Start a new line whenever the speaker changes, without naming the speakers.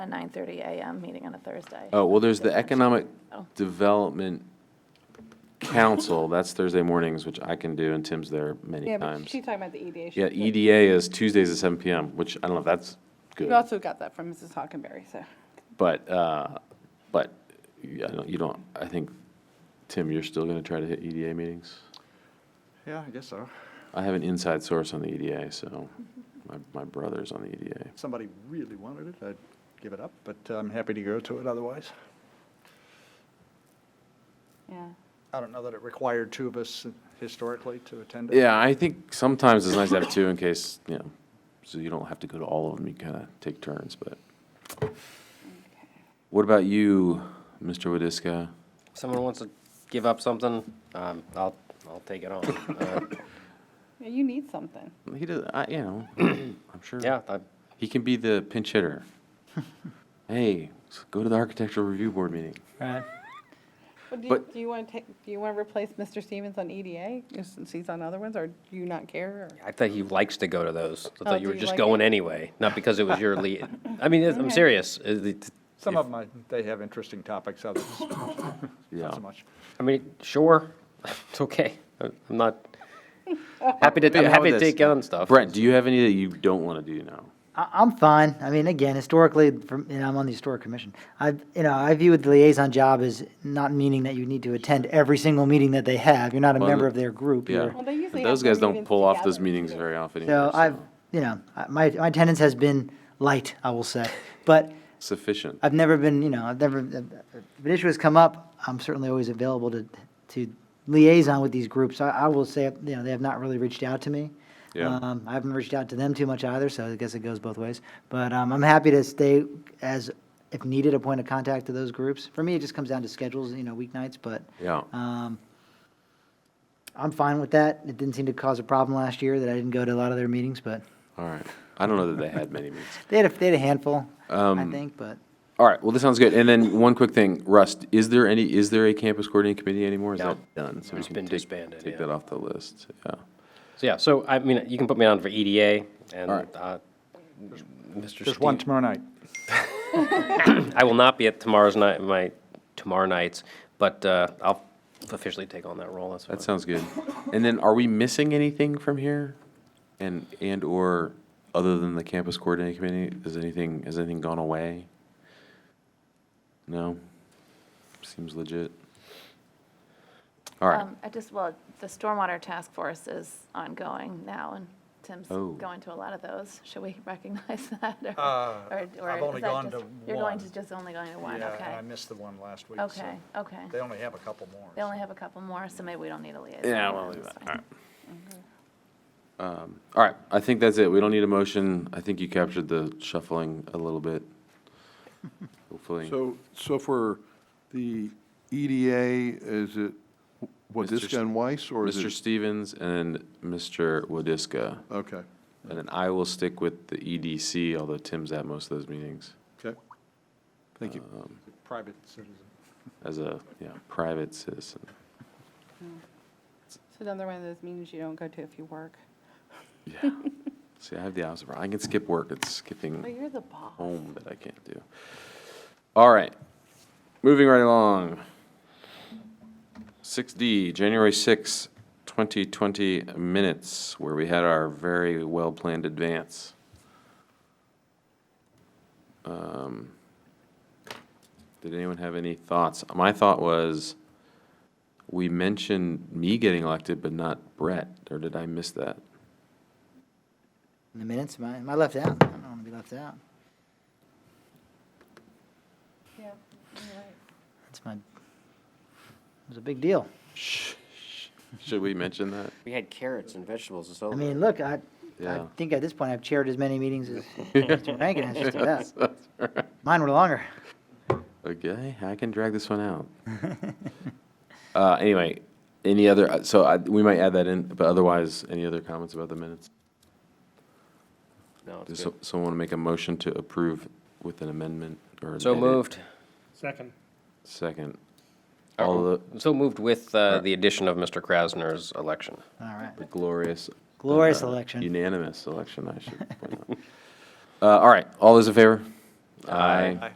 a 9:30 AM meeting on a Thursday.
Oh, well, there's the
Just mentioned
Economic
that,
Oh.
so.
Development Council, that's Thursday mornings, which I can do, and Tim's there many
Yeah, but
times.
she's talking about the E EDA.
Yeah, E EDA is Tuesdays at seven PM, which I don't know if that's
We
good,
also got that from Mrs. Hockenberry, so.
but, uh, but, yeah, I don't- you don't, I think, Tim, you're still gonna try to hit EDA meetings?
Yeah, I guess so.
I have an inside source on the EDA, so
Mm-hmm.
my, my brother's on the E EDA.
If somebody really wanted it, I'd give it up, but I'm happy to go to it otherwise.
Yeah.
I don't know that it required two of us historically to attend it.
Yeah, I think sometimes it's nice to have two in case, you know, so you don't have to go to all of them, you kind of take turns, but. What about you, Mr. Wadiska?
If someone wants to give up something, um, I'll, I'll take it on. Uh,
Yeah, You need something.
He does, I, you know, I'm sure.
Yeah, I,
He can be the pinch hitter. Hey, s- go to the architectural review board meeting.
Right.
Well, do you,
But-
do you want to take, do you want to replace Mr. Stevens on E EDA since he's on other ones, or do you not care? or-
I thought he likes to go to those. I
Oh,
thought
do
you were
you
just
like
going
it?
anyway, not because it was your lead. I mean, I'm serious. Uh, the-
Some of them, I- they have interesting topics, others not
Yeah.
so much.
I mean, sure, it's okay. I'm not, happy to,
Hey,
I'm
how
happy to
about this?
take on stuff.
Brent, do you have any that you don't want to do now?
I, I'm fine. I mean, again, historically, from, you know, I'm on the historic commission. I, you know, I view the liaison job as not meaning that you need to attend every single meeting that they have. You're not a
Well,
member
the-
of their group.
Yeah.
You're-
Well,
But
they usually
Those
have their
guys don't
meetings
pull off those
together,
meetings
too.
very often either.
So I've, you know, I- my, my attendance has been light, I will say. But
Sufficient.
I've never been, you know, I've never, if an issue has come up, I'm certainly always available to, to liaison with these groups. I, I will say, you know, they have not really reached out to me.
Yeah.
Um, I haven't reached out to them too much either, so I guess it goes both ways. But, um, I'm happy to stay as, if needed, a point of contact to those groups. For me, it just comes down to schedules, you know, weeknights, but,
Yeah.
um, I'm fine with that. It didn't seem to cause a problem last year that I didn't go to a lot of their meetings, but
All right. I don't know that they had many meetings.
they had a, they had a handful, I
Um,
think, but.
All right, well, this sounds good. And then one quick thing, Rust, is there any, is there a campus coordinating committee anymore? Is
No.
that done? So we
It's
can
been
take-
disbanded,
Take
yeah.
that off the list, yeah.
So, yeah, so I mean, you can put me on for EDA and,
All right.
uh, Mr.
Just one
Stevens.
tomorrow night.
I will not be at tomorrow's night, my, tomorrow nights, but, uh, I'll officially take on that role, that's fine.
That sounds good. And then are we missing anything from here? And, and/or, other than the campus coordinating committee, is anything, has anything gone away? No? Seems legit. All right,
Um, I just, well, the stormwater task force is ongoing now, and Tim's
Oh.
going to a lot of those. Should we recognize that? or-
Uh,
or- or
I've only
is that
gone
just-
to
You're going
one.
to just only going to one,
Yeah, and
okay.
I missed the one last week. so
Okay, okay.
They only have a couple more.
They only
so.
have a couple more, so maybe we don't need a liaison.
Yeah, we'll
then,
leave
it's
that.
fine.
All right. Um, All right, I think that's it. We don't need a motion. I think you captured the shuffling a little bit. Hopefully.
So, so for the EDA, is
Mr.
it
S-
Wadiska and Weiss, or is it?
Mr. Stevens and Mr. Wadiska.
Okay,
And then I will stick with the EDC, although Tim's at most of those meetings
okay. Thank you.
Private citizen.
as a, yeah, private citizen.
It's another one of those meetings you don't go to if you work.
Yeah. See, I have the opposite. problem. I can skip work. It's
But
skipping
you're the boss.
home that I can't do. All right, moving right along. Six D, January sixth, twenty twenty minutes, where we had our very well-planned advance. Um, Did anyone have any thoughts? My thought was, we mentioned me getting elected, but not Brett, or did I miss that?
In the minutes, am I, am I left out? I don't want to be left out.
Yeah, you're right.
That's my, it was a big deal.
Shh, shh. Should we mention that?
We had carrots and vegetables and so.
I mean, look, I, I
Yeah.
think at this point, I've chaired as many meetings as Mr. Rankin has just about. Mine were longer.
Okay, I can drag this one out. uh, anyway, any other? uh, So I, we might add that in, but otherwise, any other comments about the minutes?
No,
Does
it's
so,
good.
someone want to make a motion to approve with an amendment or an
So
edit?
moved.
Second.
Second.
Uh,
All the
So moved with uh, the addition of Mr. Krasner's election.
All right.
the glorious,
Glorious
uh,
election.
unanimous election. I should point out. uh, all right, all those in favor? Aye.